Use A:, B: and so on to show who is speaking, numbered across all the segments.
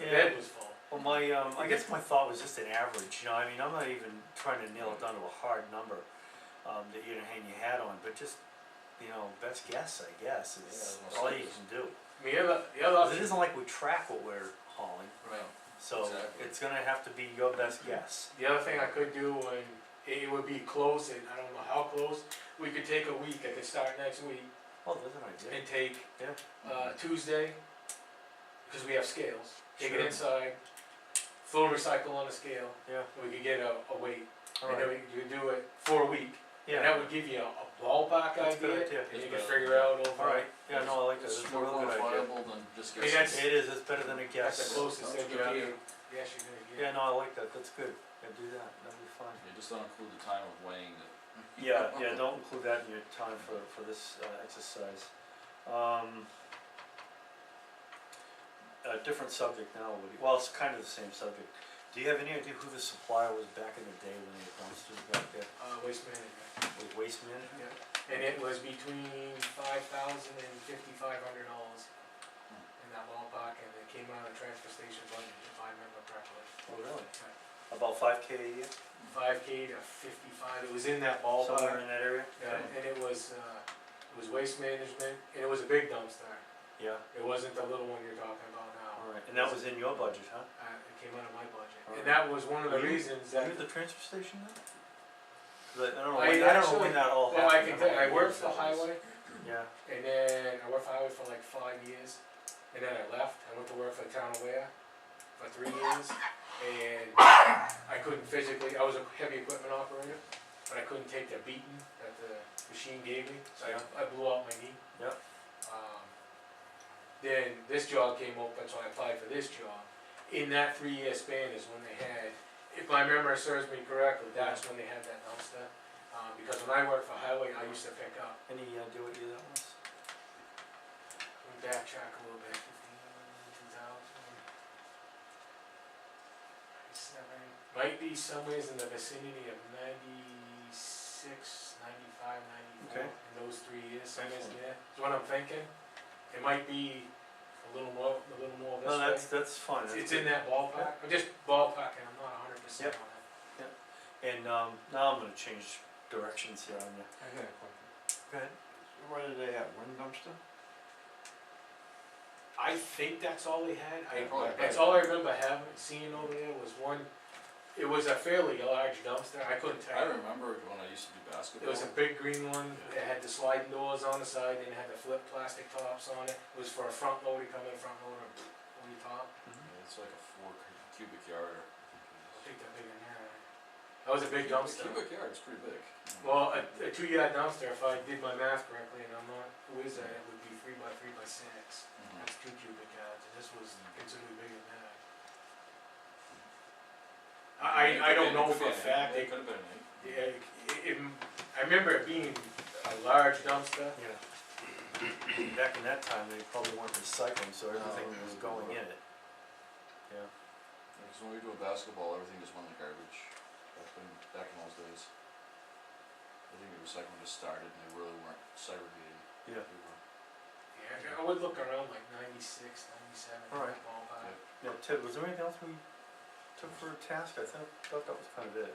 A: Yeah,
B: bed was full.
A: Well, my, um, I guess my thought was just an average, you know, I mean, I'm not even trying to nail it down to a hard number, um, that you're gonna hang your hat on, but just, you know, best guess, I guess, is
C: Yeah,
A: all you can do.
B: I mean, the other, the other
A: 'Cause it
B: option,
A: isn't like we track what we're hauling,
C: Right.
A: so
C: Exactly.
A: it's gonna have to be your best guess.
B: the other thing I could do, and it it would be close, and I don't know how close, we could take a week, I could start next week,
A: Oh, there's an idea,
B: and take,
A: yeah,
B: uh, Tuesday, cause we have scales, take it
A: Sure.
B: inside, full recycle on a scale,
A: yeah,
B: and we could get a, a weight, and then
A: alright,
B: we could do it for a week.
A: yeah.
B: And that would give you a a ballpark
A: That's a
B: idea,
A: good
B: and
A: idea.
B: you can
C: That's
B: figure
C: better.
B: out over.
A: Alright, yeah, no, I like that,
C: It's
A: that's a
C: more
A: real good idea.
C: quantifiable than just
B: I mean,
C: guessing.
A: It is, it's better than a
B: That's the
A: guess,
B: closest
C: That's a good
B: educated
C: idea.
B: guess you're gonna
A: yeah,
B: get.
A: no, I like that, that's good, yeah, do that, that'd be fine.
C: They just don't include the time of weighing it.
A: Yeah, yeah, don't include that in your time for, for this, uh, exercise. Um. A different subject now, Woody, well, it's kind of the same subject. Do you have any idea who the supplier was back in the day when they announced it back there,
B: Uh, waste management.
A: with Waste Management?
B: And it was between five thousand and fifty-five hundred dollars in that ballpark, and it came out of the transfer station budget, if I remember correctly.
A: Oh, really? About five K a year,
B: Five K to fifty-five, it was in that
A: somewhere
B: ballpark,
A: in that area?
B: yeah, and it was, uh, it was waste management, and it was a big dumpster.
A: Yeah,
B: It wasn't the little one you're talking about now,
A: alright, and that was in your budget, huh?
B: uh, it came out of my budget, and
A: Alright.
B: that was one of the
A: Were you-
B: reasons
A: Were
B: that.
A: you at the transfer station then? 'Cause I, I don't know,
B: I
A: when- I don't know
B: actually-
A: when that all
B: Well, I can
A: happened. don't
B: tell,
A: know
B: I
A: what
B: worked
A: years
B: for
A: that was.
B: highway,
A: Yeah,
B: And then I worked for Highway for like five years, and then I left. I went to work for the town of Ware for three years, and I couldn't physically. I was a heavy equipment operator, but I couldn't take the beating that the machine gave me, so I, I blew out my knee.
A: Yep.
B: Um, then this job came open, so I applied for this job. In that three-year span is when they had, if my memory serves me correctly, that's when they had that dumpster. Uh, because when I worked for Highway, I used to pick up.
A: any idea what year that was?
B: Let me backtrack a little bit. 2000, seven, Might be somewheres in the vicinity of 96, 95, 94,
A: Okay.
B: in those three years, somewheres there.
A: Excellent.
B: Is what I'm thinking. It might be a little more, a little more this
A: No,
B: way.
A: that's, that's fine,
B: It's-
A: that's
B: It's
A: good.
B: in that ballpark. I'm just ballparking. I'm not 100%
A: Yep.
B: on it.
A: And um, now I'm gonna change directions here on you.
D: I got a question.
A: Go ahead.
D: Where did they have one dumpster?
B: I think that's all they had. I,
C: Yeah, probably.
B: That's all I remember having, seeing over there was one, it was a fairly large dumpster, I couldn't
C: I
B: tell.
C: remember when I used to do
B: It
C: basketball.
B: was a big green one, it had the sliding doors on the side, and it had the flip plastic tops on it, it was for a front loader, come in front loader, on your top.
A: Mm-hmm.
C: Yeah, It's like a four cu- cubic yard.
B: I think that big in there. That was a big dumpster.
C: Cubic yard is pretty big.
B: Well, a, a two yard dumpster, if I did my math correctly, and I'm not, who is that, it would be three by three by six.
C: Mhm.
B: That's two cubic yards, and this was considerably bigger than that.
C: It
B: I, I, I
C: could
B: don't
C: be- it
B: know
C: could be
B: for a
C: an eight.
B: fact,
C: It
B: it,
C: could have been an eight.
B: yeah, it, it, I remember it being a large dumpster,
A: Yeah. Back in that time, they probably weren't recycling, so
C: No,
A: everything
D: Oh,
C: it
A: was
C: was
A: going in
C: wood.
A: it. Yeah.
C: Because when we do a basketball, everything just went in the garbage, back in, back in those days. I think the recycling just started and they really weren't segregating.
A: Yeah.
C: They were-
B: yeah, I would look around like ninety-six, ninety-seven, in
A: Alright.
B: that ballpark.
A: Now, Ted, was there anything else we took for a task? I thought, thought that was kind of it.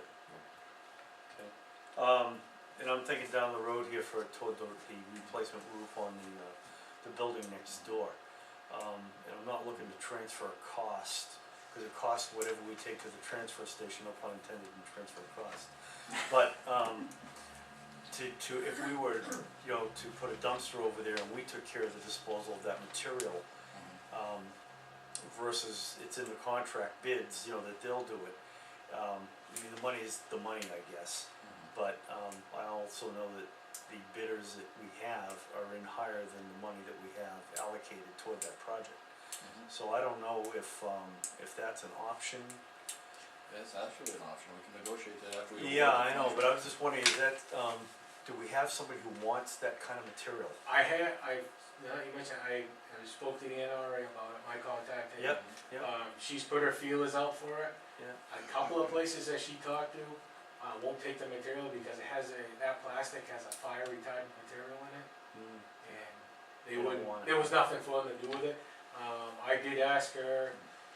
A: Okay. Um, and I'm thinking down the road here for, toward the, the replacement roof on the, uh, the building next door. Um, and I'm not looking to transfer a cost, cause it costs whatever we take to the transfer station, no pun intended in transfer cost. But, um, to, to, if we were, you know, to put a dumpster over there and we took care of the disposal of that material,
C: Mm-hmm.
A: um, versus it's in the contract bids, you know, that they'll do it. Um, I mean, the money is the money, I guess,
C: Mhm.
A: but, um, I also know that the bidders that we have are in higher than the money that we have allocated toward that project.
C: Mhm.
A: So I don't know if, um, if that's an option.
C: That's actually an option, we can negotiate that after we. award
A: Yeah,
C: the
A: I know, but I
C: contract.
A: was just wondering, is that, um, do we have somebody who wants that kind of material?
B: I had, I, now that you mentioned, I, I spoke to the NRA about it, my contact. and,
A: Yep, yep.
B: Um, she's put her feelers out for it.
A: Yeah.
B: A couple of places that she talked to, uh, won't take the material because it has a, that plastic has a fire retardant material in it.
A: Mm,
B: And
A: They
B: they
A: don't
B: wouldn't,
A: want it.
B: there was nothing for them to do with it. Um, I did ask her,